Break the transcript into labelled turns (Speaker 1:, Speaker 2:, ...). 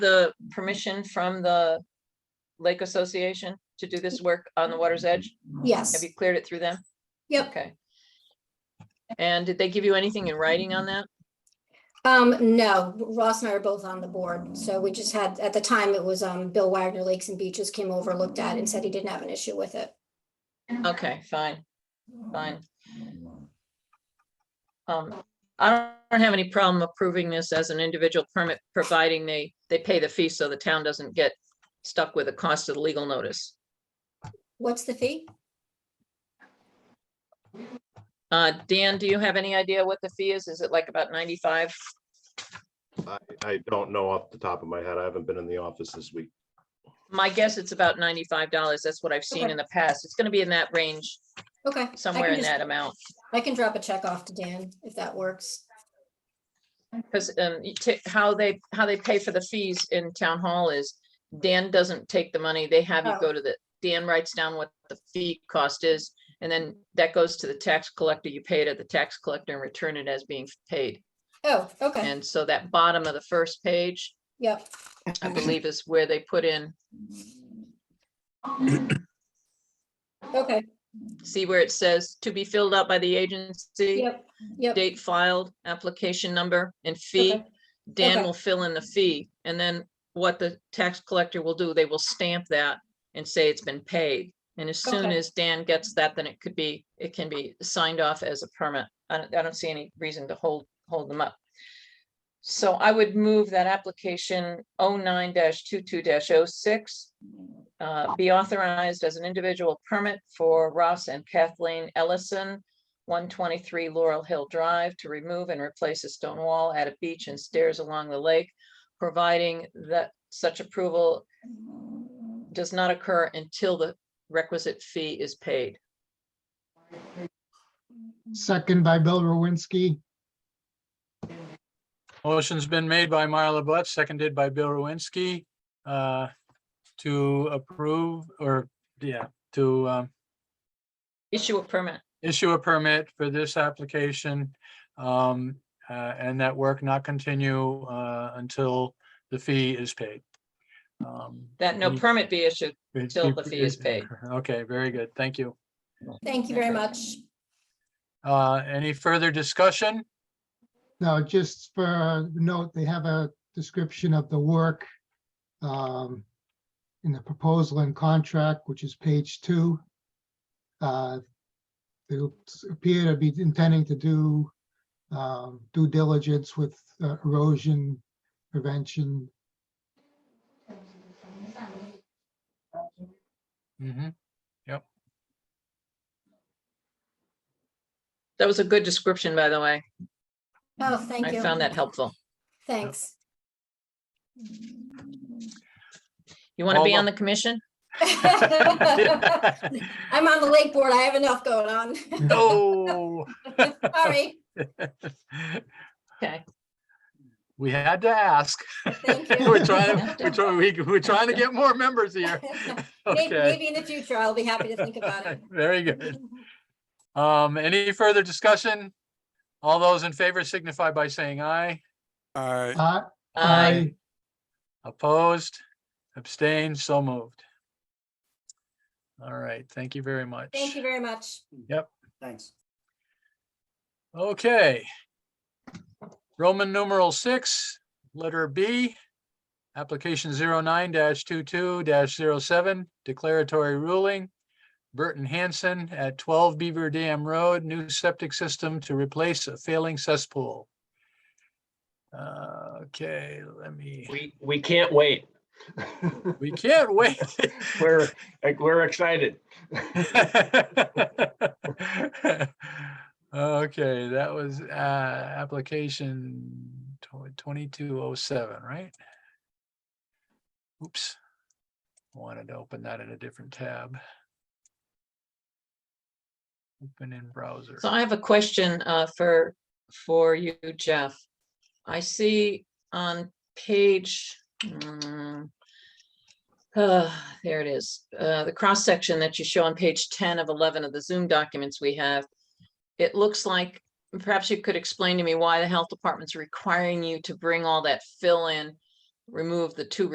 Speaker 1: the permission from the Lake Association to do this work on the water's edge? Have
Speaker 2: Yes,
Speaker 1: you cleared it through them?
Speaker 2: yep.
Speaker 1: Okay. And did they give you anything in writing on that?
Speaker 2: Um, no, Ross and I are both on the board. So we just had, at the time, it was, um, Bill Wagner Lakes and Beaches came over, looked at it and said he didn't have an issue with it.
Speaker 1: Okay, fine, fine. Um, I don't have any problem approving this as an individual permit, providing they, they pay the fee so the town doesn't get stuck with the cost of the legal notice.
Speaker 2: What's the fee?
Speaker 1: Uh, Dan, do you have any idea what the fee is? Is it like about ninety-five?
Speaker 3: I, I don't know off the top of my head. I haven't been in the office this week.
Speaker 1: My guess it's about ninety-five dollars. That's what I've seen
Speaker 2: Okay.
Speaker 1: in the past. It's gonna be in that range,
Speaker 2: Okay. I can
Speaker 1: somewhere in
Speaker 2: just-
Speaker 1: that amount.
Speaker 2: I can drop a check off to Dan if that works.
Speaker 1: Because um, you ta- how they, how they pay for the fees in town hall is Dan doesn't take the money. They have you
Speaker 2: Oh.
Speaker 1: go to the, Dan writes down what the fee cost is. And then that goes to the tax collector. You pay it at the tax collector and return it as being paid.
Speaker 2: Oh, okay.
Speaker 1: And so that bottom of the first page,
Speaker 2: Yep.
Speaker 1: I believe is where they put in,
Speaker 2: Okay.
Speaker 1: see where it says to be filled out by the agency,
Speaker 2: Yep. Yep.
Speaker 1: date filed, application number and fee.
Speaker 2: okay,
Speaker 1: Dan
Speaker 2: Okay.
Speaker 1: will fill in the fee and then what the tax collector will do, they will stamp that and say it's been paid. And as soon
Speaker 2: Okay.
Speaker 1: as Dan gets that, then it could be, it can be signed off as a permit. I don't, I don't see any reason to hold, hold them up. So I would move that application oh 9 22 6 oh uh, be authorized as an individual permit for Ross and Kathleen Ellison 123 Laurel Hill Drive to remove and replace a stone wall at a beach and stairs along the lake, providing that such approval does not occur until the requisite fee is paid.
Speaker 4: Second by Bill Rowinsky.
Speaker 5: Motion's been made by Marla Butt, seconded by Bill Rowinsky, uh, to approve or, yeah, to um,
Speaker 1: Issue a permit.
Speaker 5: issue a permit for this application. um, uh, And that work not continue uh, until the fee is paid. Um,
Speaker 1: That no
Speaker 5: any-
Speaker 1: permit be issued.
Speaker 5: it's-
Speaker 1: till the fee is paid.
Speaker 5: Okay, very good. Thank you.
Speaker 2: Thank you very much.
Speaker 5: Uh, Any further discussion?
Speaker 4: Now, just for a note, they have a description of the work um, in the proposal and contract, which is page two. Uh, They appear to be intending to do um, due diligence with uh, erosion prevention.
Speaker 5: Mhm.
Speaker 1: That was a good description, by the way.
Speaker 2: Oh, thank
Speaker 1: I
Speaker 2: you.
Speaker 1: found that helpful.
Speaker 2: Thanks.
Speaker 1: You want to
Speaker 5: All
Speaker 1: be on
Speaker 5: the-
Speaker 1: the commission?
Speaker 2: I'm on the lake board. I have enough going on.
Speaker 5: Oh. No.
Speaker 2: Sorry.
Speaker 1: Okay.
Speaker 5: We had to ask.
Speaker 2: Thank you.
Speaker 5: We're
Speaker 1: You
Speaker 5: trying,
Speaker 1: have to.
Speaker 5: to- we're trying, we- we're trying to get more members here.
Speaker 2: May-
Speaker 5: Okay.
Speaker 2: Maybe in the future, I'll be happy to think about it.
Speaker 5: Very good. Um, any further discussion? All those in favor signify by saying aye.
Speaker 6: Aye.
Speaker 4: Uh,
Speaker 1: I
Speaker 5: Opposed, abstained, so moved. All right, thank you very much.
Speaker 2: Thank you very much.
Speaker 7: Thanks.
Speaker 5: Okay. Roman numeral six, letter B. Application 9 22 7 declaratory ruling. Burton Hanson at twelve Beaver Dam Road, new septic system to replace a failing cesspool. Uh, Okay, let me,
Speaker 8: We, we can't wait.
Speaker 5: we can't wait.
Speaker 8: We're, like, we're excited.
Speaker 5: Okay, that was uh application twenty-two oh seven, right? Oops. Wanted to open that in a different tab. Open in browser.
Speaker 1: So I have a question uh, for, for you, Jeff. I see on page, mm, uh, there it is, uh, the cross-section that you show on page 10 of 11 of the Zoom documents we have. It looks like, perhaps you could explain to me why the health department's requiring you to bring all that fill in remove the two